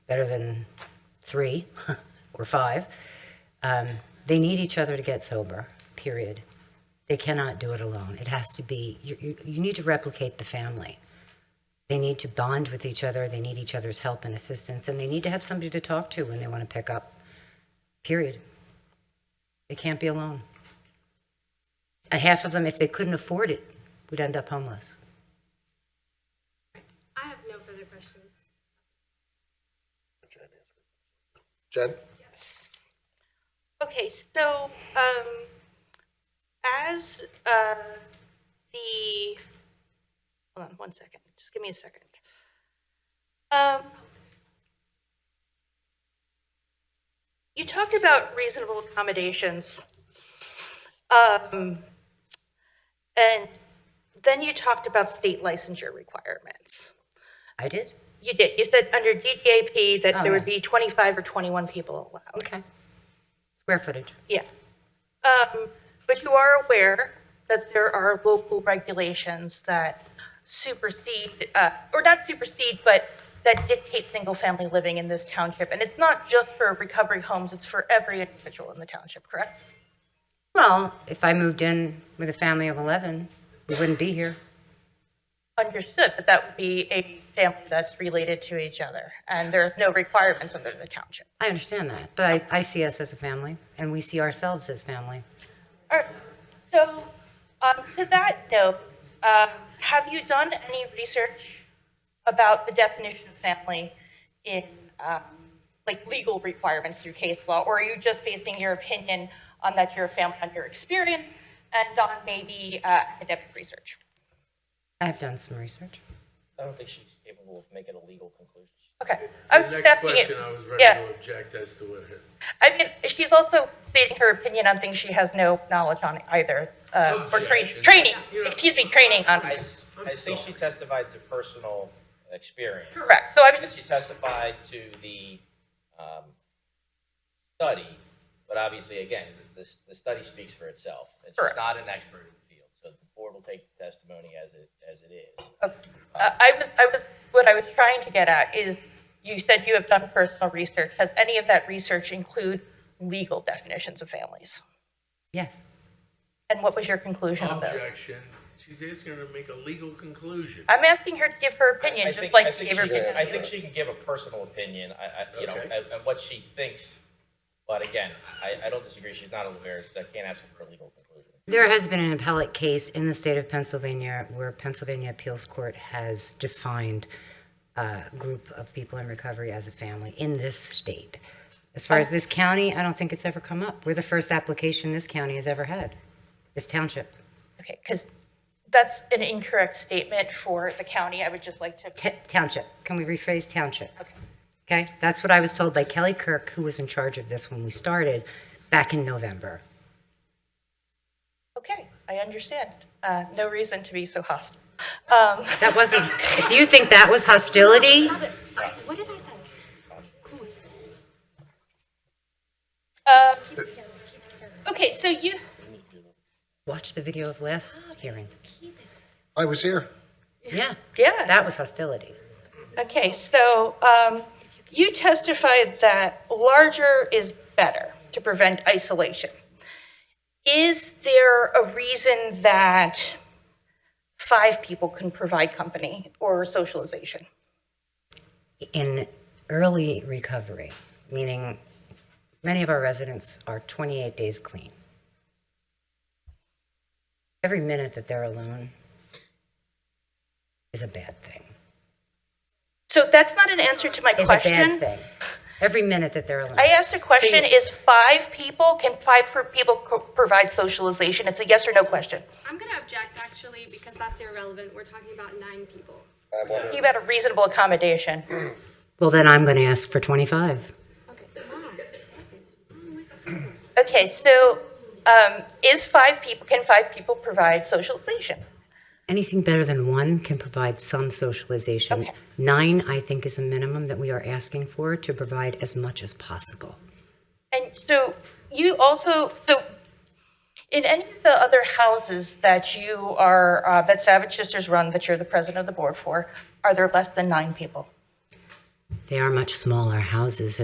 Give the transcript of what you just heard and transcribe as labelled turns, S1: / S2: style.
S1: better than three or five. Um, they need each other to get sober, period. They cannot do it alone. It has to be, you, you, you need to replicate the family. They need to bond with each other, they need each other's help and assistance, and they need to have somebody to talk to when they want to pick up, period. They can't be alone. A half of them, if they couldn't afford it, would end up homeless.
S2: I have no further questions.
S3: Jen?
S4: Okay, so, um, as, uh, the, hold on one second, just give me a second. Um, you talked about reasonable accommodations. Um, and then you talked about state licensure requirements.
S1: I did?
S4: You did, you said under DDAP that
S1: Oh,
S4: there
S1: yeah.
S4: would be 25 or 21 people allowed.
S1: Okay. Square footage.
S4: Yeah. Um, But you are aware that there are local regulations that supersede, uh, or not supersede, but that dictate single-family living in this township. And it's not just for recovery homes, it's for every individual in the township, correct?
S1: Well, if I moved in with a family of 11, we wouldn't be here.
S4: Understood, but that would be a family that's related to each other, and there's no requirements under the township.
S1: I understand that, but I, I see us as a family, and we see ourselves as family.
S4: All right. So, um, to that note, um, have you done any research about the definition of family in, um, like, legal requirements through case law? Or are you just basing your opinion on that you're a family, on your experience, and on maybe uh, academic research?
S1: I have done some research.
S5: I don't think she's capable of making a legal conclusion.
S4: Okay. I was just
S6: Next
S4: asking it-
S6: question, I was ready
S4: Yeah.
S6: to object as to what her.
S4: I mean, she's also stating her opinion on things she has no knowledge on either,
S6: Oh,
S4: uh, or training,
S6: Objection.
S4: training, excuse me, training on.
S5: I, s- I think she testified to personal experience.
S4: Correct. So I was
S5: And
S4: just
S5: she testified to the um, study, but obviously, again, the, the study speaks for itself. And she's
S4: Correct.
S5: not an expert in the field, so the board will take the testimony as it, as it is.
S4: Uh, I was, I was, what I was trying to get at is, you said you have done personal research. Has any of that research include legal definitions of families?
S1: Yes.
S4: And what was your conclusion of those?
S6: Objection, she's asking her to make a legal conclusion.
S4: I'm asking her to give her
S5: I
S4: opinion, just
S5: think- I
S4: like she
S5: think
S4: gave her
S5: she can-
S4: opinion.
S5: I think she can give a personal opinion, I, I, you know,
S6: Okay.
S5: and, and what she thinks. But again, I, I don't disagree, she's not a lawyer, so I can't ask her for a legal conclusion.
S1: There has been an appellate case in the state of Pennsylvania where Pennsylvania Appeals Court has defined a group of people in recovery as a family in this state. As far as this county, I don't think it's ever come up. We're the first application this county has ever had, this township.
S4: Okay, because that's an incorrect statement for the county. I would just like to,
S1: T- Township, can we rephrase township?
S4: okay.
S1: Okay, that's what I was told by Kelly Kirk, who was in charge of this when we started back in November.
S4: Okay, I understand. Uh, no reason to be so hostile. Um,
S1: That wasn't, if you think that was hostility,
S2: Robert, I- what did I say? Cool.
S4: um,
S2: Keep it together, keep it together.
S4: okay, so you,
S1: watch the video of last hearing.
S2: Keep it.
S3: I was here.
S1: Yeah,
S4: yeah.
S1: that was hostility.
S4: Okay, so um, you testified that larger is better to prevent isolation. Is there a reason that five people can provide company or socialization?
S1: in early recovery, meaning many of our residents are 28 days clean. Every minute that they're alone is a bad thing.
S4: So that's not an answer to my
S1: Is a bad
S4: question.
S1: thing. Every minute that they're alone.
S4: I asked a question,
S1: So
S4: is five people, can five per- people co- provide socialization? It's a yes or no question.
S2: I'm gonna object actually because that's irrelevant. We're talking about nine people.
S3: I'm wondering,
S4: You about a reasonable accommodation.
S1: well, then I'm going to ask for 25.
S2: Okay, come on.
S4: Okay, so um, is five people, can five people provide socialization?
S1: Anything better than one can provide some socialization.
S4: Okay.
S1: Nine, I think, is a minimum that we are asking for to provide as much as possible.
S4: And so you also, so in any of the other houses that you are, uh, that Savage Sisters run, that you're the president of the board for, are there less than nine people?
S1: They are much smaller houses